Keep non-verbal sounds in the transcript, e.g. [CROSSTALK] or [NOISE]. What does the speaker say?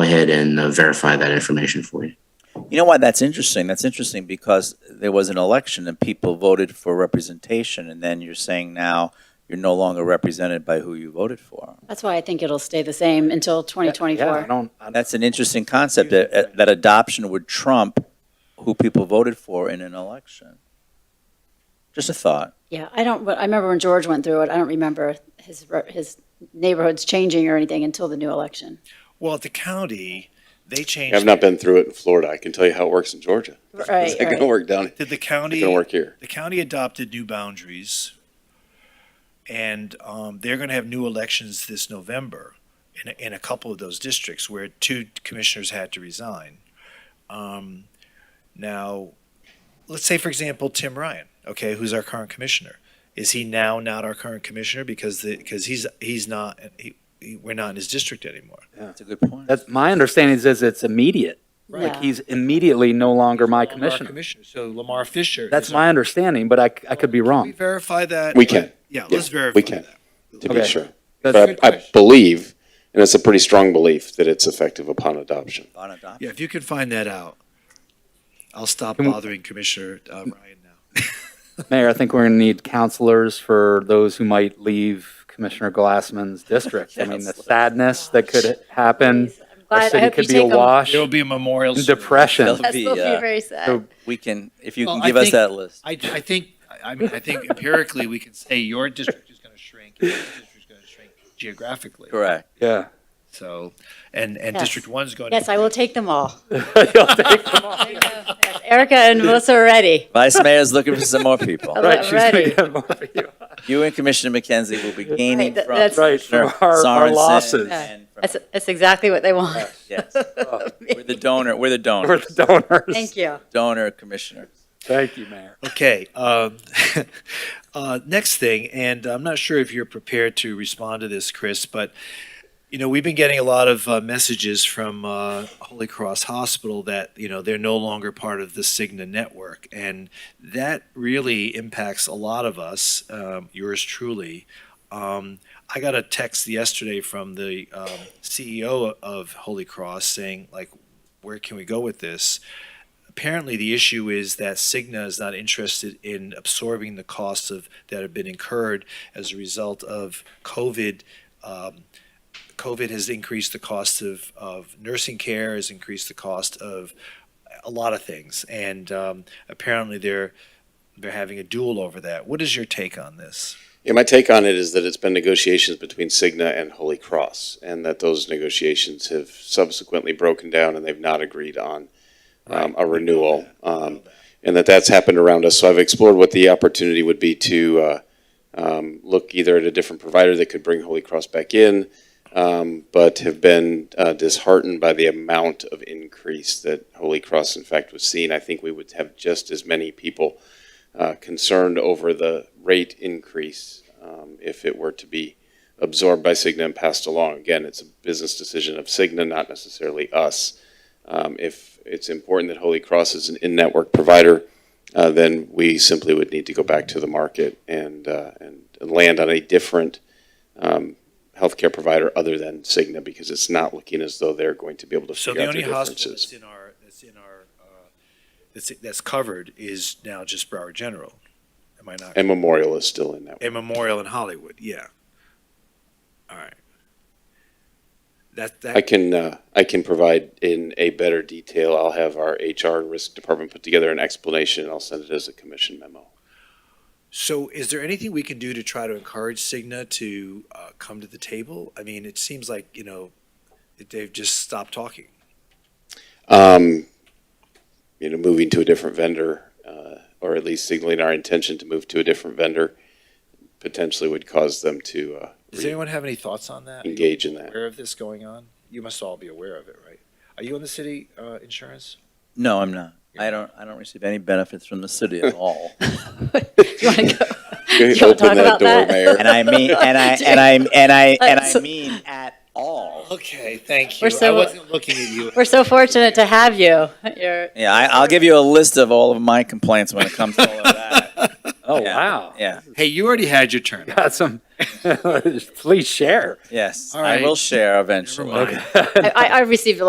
ahead and uh, verify that information for you. You know why that's interesting? That's interesting because there was an election and people voted for representation, and then you're saying now you're no longer represented by who you voted for. That's why I think it'll stay the same until Yeah, I 2024. don't, I don't- That's an interesting concept that, that adoption would trump who people voted for in an election. Just a thought. Yeah, I don't, but I remember when George went through it, I don't remember his, re- his neighborhoods changing or anything until the new election. Well, at the county, they changed. I've not been through it in Florida. I can tell you how it works in Georgia. Right, It's not going to right. work down. It's Did the county? going to work here. The county adopted new boundaries, and um, they're going to have new elections this November in a, in a couple of those districts where two commissioners had to resign. Um, now, let's say, for example, Tim Ryan, okay, who's our current commissioner, is he now not our current commissioner because the because he's he's not he, he, we're not in his district anymore. That's a good point. that's, my understanding is, is it's immediate. Like Yeah. he's immediately no longer my Lamar commissioner. So Lamar Fisher. That's is- my understanding, but I, I could be Can we wrong. verify that? We can. Yeah, Yeah, let's verify. we can. that. to be Okay. sure. That's- But I, I believe, and it's a pretty strong belief, that it's effective upon adoption. On adoption. Yeah, if you can find that out, I'll stop Can we- bothering Commissioner uh, Ryan now. [LAUGHS] Mayor, I think we're going to need counselors for those who might leave Commissioner Glassman's district. I mean, the sadness that could I'm happen. Our glad, I city hope you could be take them. awash There'll in be a [LAUGHS] memorial. depression. That'll That's be, will be uh, very sad. So- We can, if you Well, can I give us think- that list. I, I think, I mean, I think empirically, we can say your district is going to shrink, and your district is going to shrink geographically. Correct. Yeah. So, and, and Yes. District One's going to. Yes, I will take them all. [LAUGHS] [LAUGHS] You'll take them all. Erica and Melissa are ready. Vice Mayor's looking for some more people. Right, she's gonna Already. get more for you. [LAUGHS] You and Commissioner McKenzie will be gaining Right, that- from. that's- Right, from Commissioner our- our Sorensen losses. and from- That's, that's exactly what they want. Yes. [LAUGHS] We're the donor, we're the We're donor, the donors. Thank [LAUGHS] you. donor commissioner. Thank you, Mayor. Okay. Um, [LAUGHS] uh, next thing, and I'm not sure if you're prepared to respond to this, Chris, but you know we've been getting a lot of uh, messages from uh, Holy Cross Hospital that you know they're no longer part of the Cigna network, and that really impacts a lot of us. Um, yours truly. Um, I got a text yesterday from the um, CEO of Holy Cross saying, like, where can we go with this? apparently the issue is that Cigna is not interested in absorbing the costs of that have been incurred as a result of COVID. Um, COVID has increased the cost of, of nursing care, has increased the cost of a lot of things, and um, apparently they're they're having a duel over that. What is your take on this? Yeah, my take on it is that it's been negotiations between Cigna and Holy Cross, and that those negotiations have subsequently broken down, and they've not agreed on um, a renewal, um, and that that's happened around us. So I've explored what the opportunity would be to uh, um, look either at a different provider that could bring Holy Cross back in, um, but have been uh, disheartened by the amount of increase that Holy Cross, in fact, was seeing. I think we would have just as many people uh, concerned over the rate increase um, if it were to be absorbed by Cigna and passed along. Again, it's a business decision of Cigna, not necessarily us. Um, If it's important that Holy Cross is an in-network provider, uh, then we simply would need to go back to the market and, uh, and and land on a different um, healthcare provider other than Cigna because it's not looking as though they're going to be able to So the figure out only their hospital differences. that's in our that's in our uh, that's that's covered is now just Broward General. Am I not? And Memorial is still in that. A memorial in Hollywood, yeah. All right. That, I that, can, uh, I can provide in a better detail. I'll have our HR and risk department put together an explanation and I'll send it as a commission memo. so is there anything we can do to try to encourage Cigna to, uh, come to the table? I mean, it seems like, you know, that they've just stopped talking. Um, you know, moving to a different vendor, uh, or at least signaling our intention to move to a different vendor potentially would cause them to, uh, Does anyone have any thoughts on that? Are you engage in that. Aware of this going on? You must all be aware of it, right? Are you on the city, uh, insurance? No, I'm not. I don't, I don't receive any benefits from the city at all. You wanna go? wanna Open talk that about door, that? Mayor. [LAUGHS] And I mean, and I, and I, and I, and I mean at all. Okay, thank We're so- looking at you. We're so fortunate to have you. You're, Yeah, I, I'll give you a list of all of my complaints when it comes to all of that. Oh, Yeah. wow. Yeah, [LAUGHS] Hey, you already had your turn. Got some, [LAUGHS] please share. yes, All I will right. share eventually. [LAUGHS] mind. I, I I received a